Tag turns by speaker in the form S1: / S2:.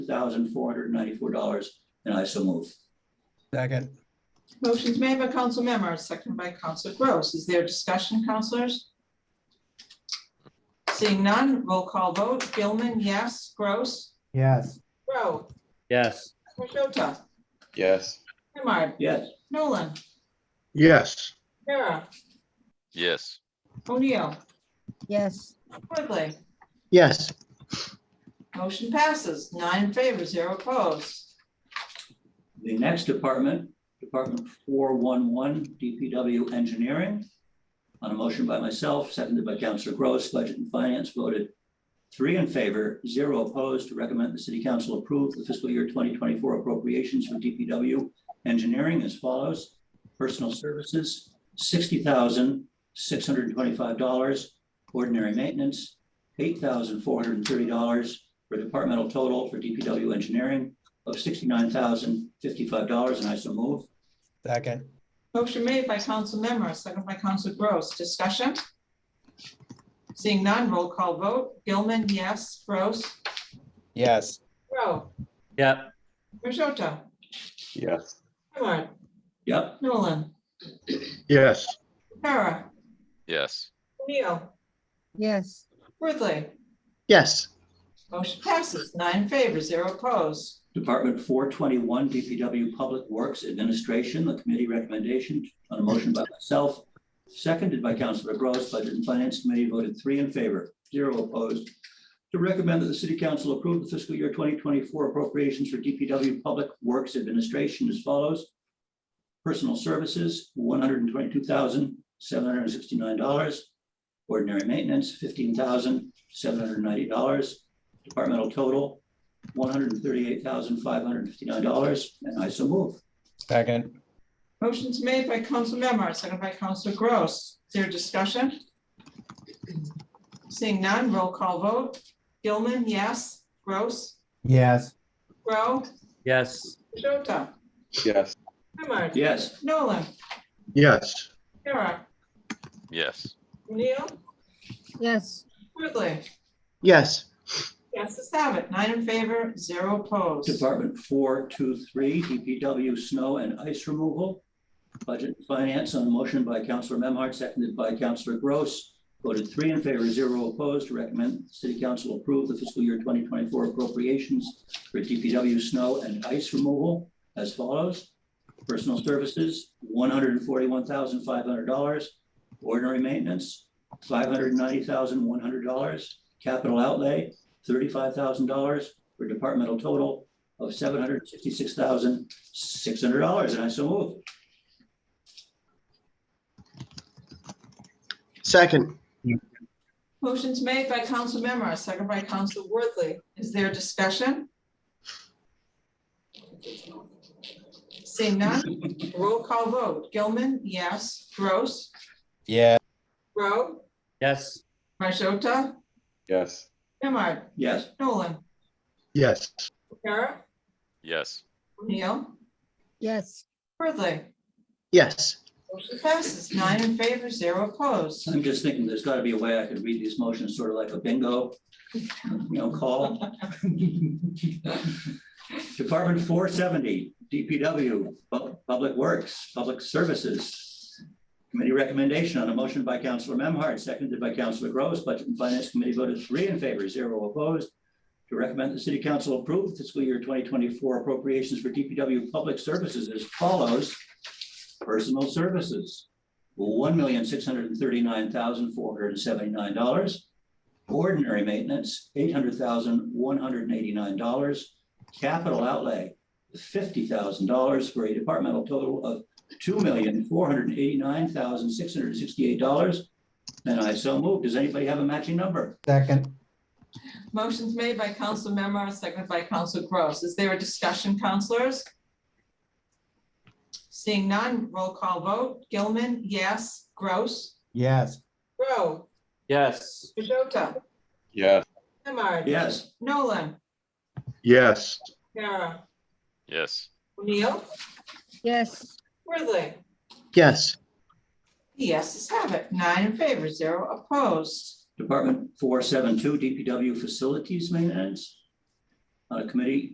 S1: thousand four hundred ninety-four dollars, and I so move.
S2: Second,
S3: Motion's made by Council Memmer, seconded by Council Gross. Is there discussion, councilors? Seeing none, roll call vote. Gilman, yes. Gross?
S4: Yes,
S3: Grow.
S5: Yes,
S3: Majota.
S6: Yes,
S3: Memard.
S1: Yes,
S3: Nolan.
S7: Yes,
S3: O'Hara.
S8: Yes,
S3: O'Neill.
S9: Yes,
S3: Quigley.
S7: yes,
S3: Motion passes, nine in favor, zero opposed.
S1: the next department, Department four one one, DPW Engineering. On a motion by myself, seconded by Councilor Gross, Budget and Finance voted three in favor, zero opposed, to recommend the city council approve the fiscal year twenty twenty-four appropriations for DPW Engineering as follows. Personal services, sixty thousand, six hundred and twenty-five dollars. Ordinary maintenance, eight thousand, four hundred and thirty dollars, for a departmental total for DPW Engineering, of sixty-nine thousand fifty-five dollars, and I so move.
S2: second,
S3: Motion made by Council Memmer, seconded by Council Gross. Discussion? Seeing none, roll call vote. Gilman, yes. Gross?
S2: yes,
S3: Grow.
S5: yep,
S3: Majota.
S6: yes,
S3: Memard.
S1: Yep,
S3: Nolan.
S7: yes,
S3: O'Hara.
S8: yes,
S3: O'Neill.
S9: yes,
S3: Worthly.
S7: yes,
S3: Motion passes nine in favor, zero opposed.
S1: Department four twenty-one, DPW Public Works Administration, the committee recommendation on a motion by myself, seconded by Councilor Gross, Budget and Finance Committee voted three in favor, zero opposed, to recommend that the city council approve the fiscal year twenty twenty-four appropriations for DPW Public Works Administration as follows. Personal services, one hundred and twenty-two thousand, seven hundred and sixty-nine dollars. Ordinary maintenance, fifteen thousand, seven hundred and ninety dollars. Departmental total, one hundred and thirty-eight thousand, five hundred and fifty-nine dollars, and I so move.
S2: second,
S3: Motion's made by Council Memard, seconded by Council Gross. Is there discussion? Seeing none, roll call vote. Gilman, yes. Gross.
S4: yes,
S3: Grow.
S5: yes,
S3: Majota.
S6: yes,
S3: Memard.
S1: Yes,
S3: Nolan.
S7: yes,
S3: O'Hara.
S8: yes,
S3: O'Neill.
S9: yes,
S3: Worthly.
S7: yes,
S3: Yes, let's have it. Nine in favor, zero opposed.
S1: Department four two three, DPW Snow and Ice Removal. Budget and Finance on a motion by Counselor Memhard, seconded by Counselor Gross. Voted three in favor, zero opposed, to recommend City Council approve the fiscal year twenty twenty-four appropriations for DPW Snow and Ice Removal as follows. Personal Services, one hundred and forty-one thousand, five hundred dollars. Ordinary Maintenance, five hundred and ninety thousand, one hundred dollars. Capital Outlay, thirty-five thousand dollars for a departmental total of seven hundred sixty-six thousand, six hundred dollars, and I so move.
S7: second,
S3: Motion's made by Council Memard, seconded by Council Worthly. Is there discussion? Seeing none, roll call vote. Gilman, yes. Gross,
S2: yeah,
S3: Grow,
S5: yes,
S3: Majota,
S6: yes,
S3: Memard,
S1: Yes,
S3: Nolan,
S7: yes,
S3: O'Hara,
S8: yes,
S3: O'Neill,
S9: yes,
S3: Worthly.
S7: yes,
S3: Motion passes nine in favor, zero opposed.
S1: I'm just thinking there's gotta be a way I could read these motions sort of like a bingo, you know, call. Department four seventy, DPW, Pu- Public Works, Public Services. Committee recommendation on a motion by Counselor Memhard, seconded by Counselor Groves, Budget and Finance Committee voted three in favor, zero opposed. To recommend the city council approve fiscal year twenty twenty-four appropriations for DPW Public Services as follows. Personal Services, one million, six hundred and thirty-nine thousand, four hundred and seventy-nine dollars. Ordinary maintenance, eight hundred thousand, one hundred and eighty-nine dollars. Capital outlay, fifty thousand dollars for a departmental total of two million, four hundred and eighty-nine thousand, six hundred and sixty-eight dollars. And I so move. Does anybody have a matching number?
S4: second,
S3: Motion's made by Council Memard, seconded by Council Gross. Is there a discussion, councilors? Seeing none, roll call vote. Gilman, yes. Gross.
S4: yes,
S3: Grow.
S5: yes,
S3: Majota.
S6: yes,
S3: Memard.
S1: Yes.
S3: Nolan.
S7: yes,
S3: O'Hara.
S8: yes,
S3: O'Neill.
S9: yes,
S3: Worthly.
S7: yes,
S3: Yes, let's have it. Nine in favor, zero opposed.
S1: Department four seven two, DPW Facilities Maintenance. On a Uh, committee